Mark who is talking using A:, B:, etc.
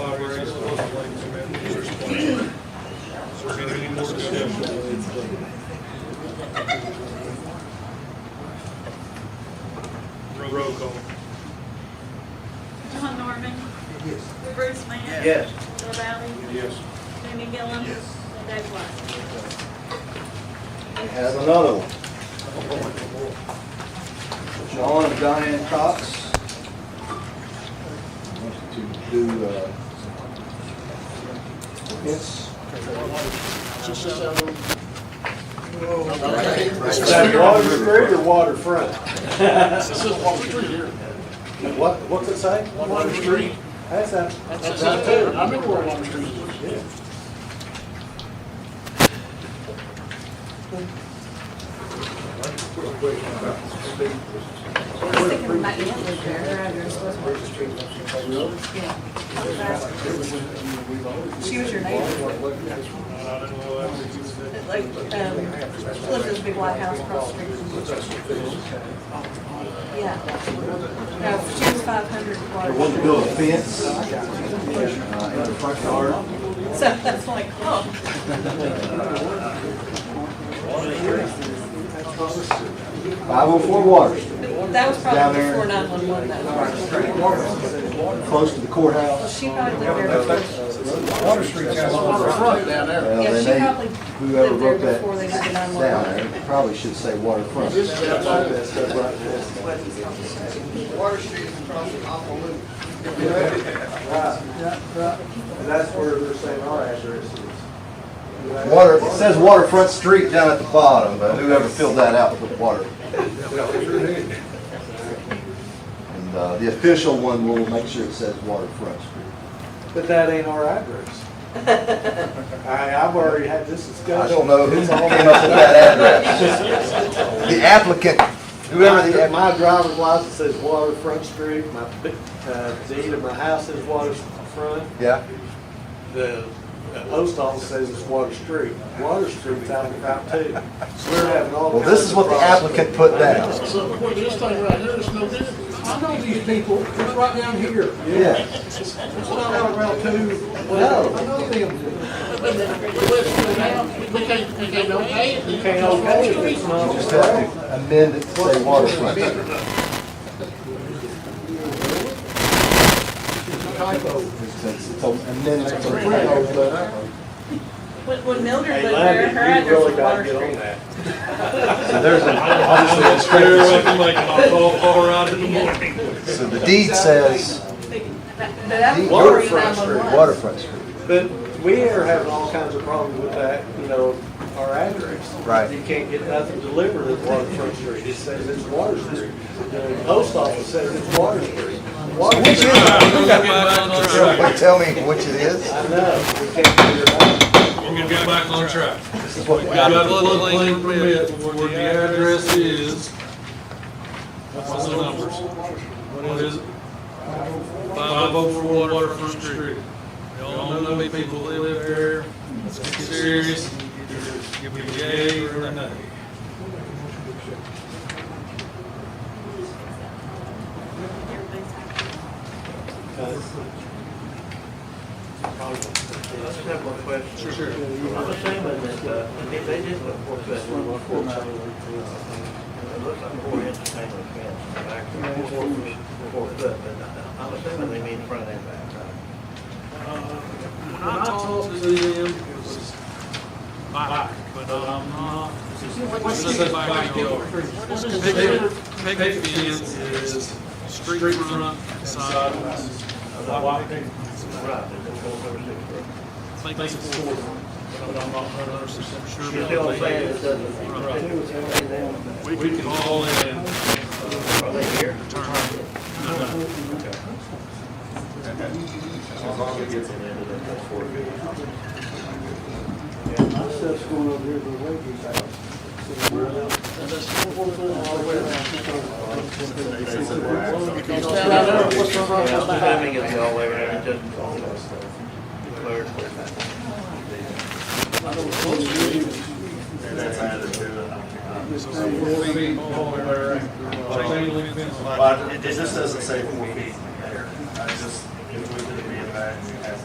A: Bryant?
B: Yes.
A: Bill Riley?
C: Yes.
A: Jimmy Gillum?
C: Yes.
A: And Dave Wise?
B: We have another one. Sean and Diane Cox. Wants to do, uh, yes. Is that waterfront or waterfront?
D: This is Water Street here.
B: What, what's it say?
D: Water Street.
B: That's that.
D: That's out there. I remember where Water Street is.
E: I was thinking we might be able to repair her address, was one. Yeah. She was your neighbor, like, um, she lived in this big white house across the street. from- Yeah. No, she was five hundred.
B: They want to build a fence uh, in the front yard.
E: So that's like, oh,
B: Five oh four Water Street,
E: that was
B: Down
E: probably
B: there.
E: before nine one one, that was.
B: close to the
E: Well,
B: courthouse.
E: she probably lived there before.
C: Water Street has
D: Waterfront down there.
B: Well,
E: Yeah,
B: they
E: she
B: may-
E: probably
B: Whoever
E: lived there
B: wrote that
E: before they did the
B: down
E: 911.
B: there, it probably should say waterfront.
D: This is outside of this.
F: Water Street is across the awful loop.
C: That's where they're saying our address is.
B: Water, it says waterfront street down at the bottom, but whoever filled that out put water. And uh, the official one will make sure it says waterfront street.
C: But that ain't our address. I, I've already had this
B: I
C: discussion.
B: don't know who came up with that address. The applicant, whoever the,
C: My my driver's license says Waterfront Street, my, uh, deed of my house says Waterfront,
B: yeah,
C: the uh, post office says it's Water Street. Water Street's out of Route Two. We're having all
B: well,
C: kinds of.
B: this is what the
C: problems.
B: applicant put down.
D: So, boy, this thing right here is no different.
C: I know these people, it's right down here.
B: Yeah.
C: It's not out around two.
B: No.
C: I know them.
D: We can't, we can't okay it.
C: You can't okay it, it's not.
B: Just have to amend it to say waterfront. Since it's an amendment to the previous letter.
A: When, when Mildred
C: Hey,
A: lived there,
C: Landy,
A: her
C: you
A: address
C: really
A: was
C: gotta
A: Water
C: get on
A: Street.
C: that.
B: So there's an, obviously a discrepancy. So the deed says
E: But that's
B: Deed-
E: before
C: Waterfront
E: 911.
B: waterfront street.
C: But we are having all kinds of problems with that, you know, our address.
B: Right.
C: You can't get nothing delivered at Waterfront Street. It says it's Water Street. The post office says it's Water Street. Water
B: Which is,
C: Street.
B: somebody tell me which it is?
C: I know, we can't figure it out.
G: We're gonna get back on track.
B: This is what we
G: We got
B: got.
G: a floodplain permit where the address is. What's the numbers? What is it? Five oh four Waterfront Street. We all know the people that live there. Let's get serious. Give me a yay or a nay.
H: I just have one question.
G: Sure, sure.
H: I'm assuming that, uh, I mean, they did look for that, look for that. It looks like four inch tangle fence, back to four, four foot, but I- I'm assuming they mean front and back, right?
G: When I talked to them, it was back, but I'm not. This is a backyard. Pick, pick fence is street front, sidewalks. White picket fence.
H: Right, it's four over six foot.
G: I think it's four, but I'm not hundred percent sure.
H: You see what I'm saying? It doesn't-
G: Right.
H: They don't-
G: We we can all in.
H: Are they here?
G: No, no.
C: My stuff's going over here to the Wakey's house.
D: What's the front
H: I'm
D: of that?
H: assuming it's all the way around, it doesn't all that stuff. Declared for that.
G: So it's four feet all the way around. Chain link fence.
F: But it just doesn't say four feet.